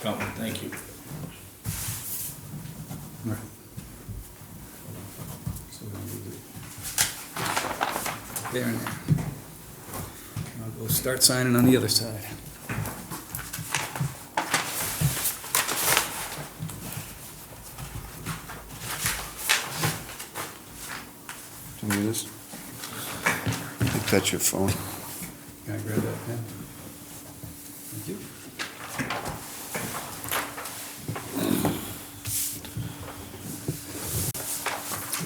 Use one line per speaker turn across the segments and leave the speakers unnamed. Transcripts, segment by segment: coming, thank you.
Right. So we'll leave it There and there. I'll go start signing on the other side.
Do you need this? I think that's your phone.
Can I grab that pen? Thank you.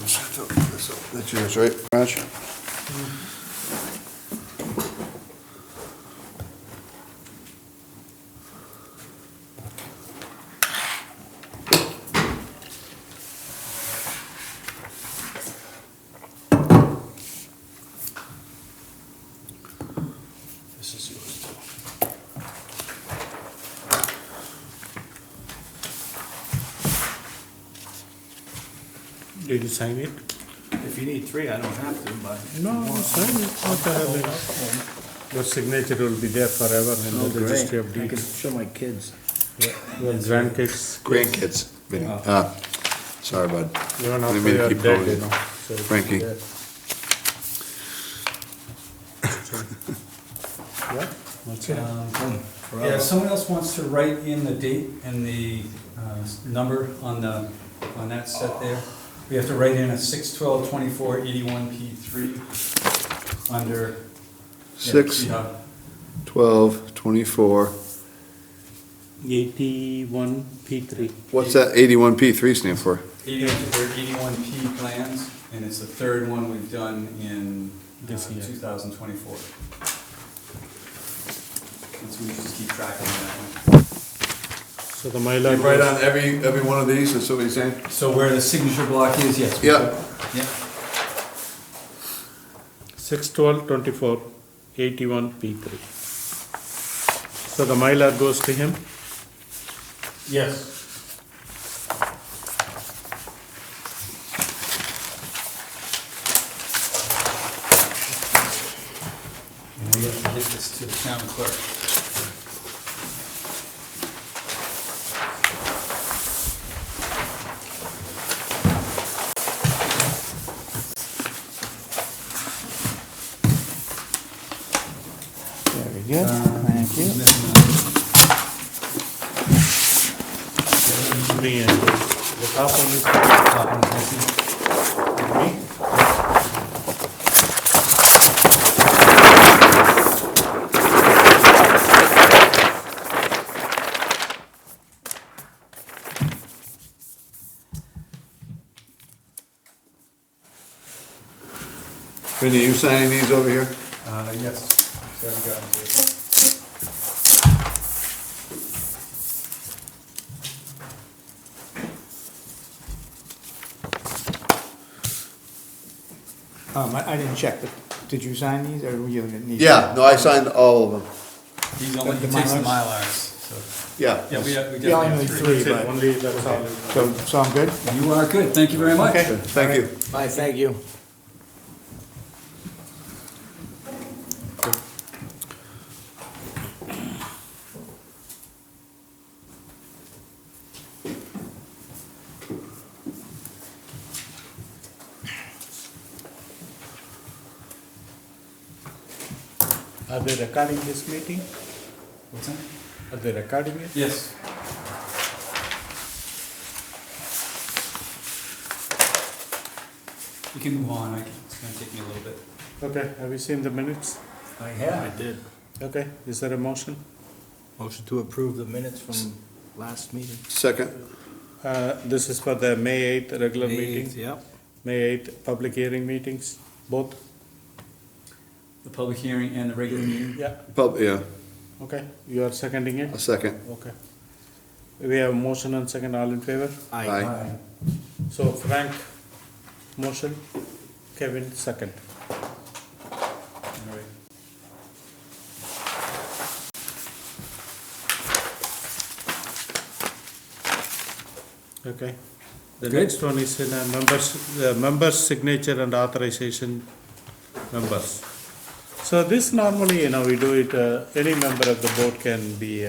That's yours, right, Raj?
This is yours too.
Did you sign it?
If you need three, I don't have to, but.
No, sign it. What the hell is- Your signature will be there forever
Oh,
in the registry of
Oh, I could
deeds.
show my kids.
Yeah, Your grandkids.
Grandkids. Vinny. Ah, Sorry, bud.
Even
Didn't
after
mean to
you're
keep
dead,
going.
you know. so it's
Frankie.
there. So- Yeah, that's it.
Yeah, if someone else wants to write in the date and the uh, s- number on the, on that set there, we have to write in a six twelve twenty-four eighty-one P three under. yeah,
Six.
see how-
12, 24.
Eighty-one P three.
What's that 81P3 stand for?
81 or 81P plans, and it's the third one we've done in uh,
This year.
2024. And so we just keep track of that
So the Mylar. goes-
every, every one of these, that's what he's saying?
one. So where the signature block is, yes. we-
Yeah.
Yeah.
Six twelve twenty-four, eighty-one P three. So the Mylar goes to him? Yes.
And we have to get this to the town clerk.
Very good,
Um,
thank you.
missing a-
Me and the top one is
top one is missing.
me.
Vinny, you signing these over here?
Uh, yes, so I've gotten to it.
Um, I, I didn't check, but did you sign these or you didn't need?
Yeah, no, I signed all of them.
He's only, he
The
takes the
Mylars?
Mylars, so,
Yeah.
yeah, we have, we
Yeah, I
definitely
need
have three.
three,
That's it,
but,
only that's all.
so, so I'm good?
You are good, thank you very much.
Okay.
Thank you.
Bye, thank you.
Are they recording this meeting?
What's that?
Are they recording it?
Yes. You can move on, I can- it's gonna take me a little bit.
Okay, have you seen the minutes?
I have.
did.
Okay, is there a motion?
Motion to approve the minutes from last meeting.
Second.
Uh, this is for the May eighth regular meeting,
Yep.
May eighth public hearing meetings, both?
The public hearing and the regular meeting.
Yeah.
Pub, yeah,
Okay, you are seconding
a
it?
second.
Okay. We have motion and second, all in favor?
Aye.
So Frank, motion, Kevin, second.
All right.
Okay. The
Good.
next one is in a members, the members' signature and authorization members. So this normally, you know, we do it, uh, any member of the board can be uh,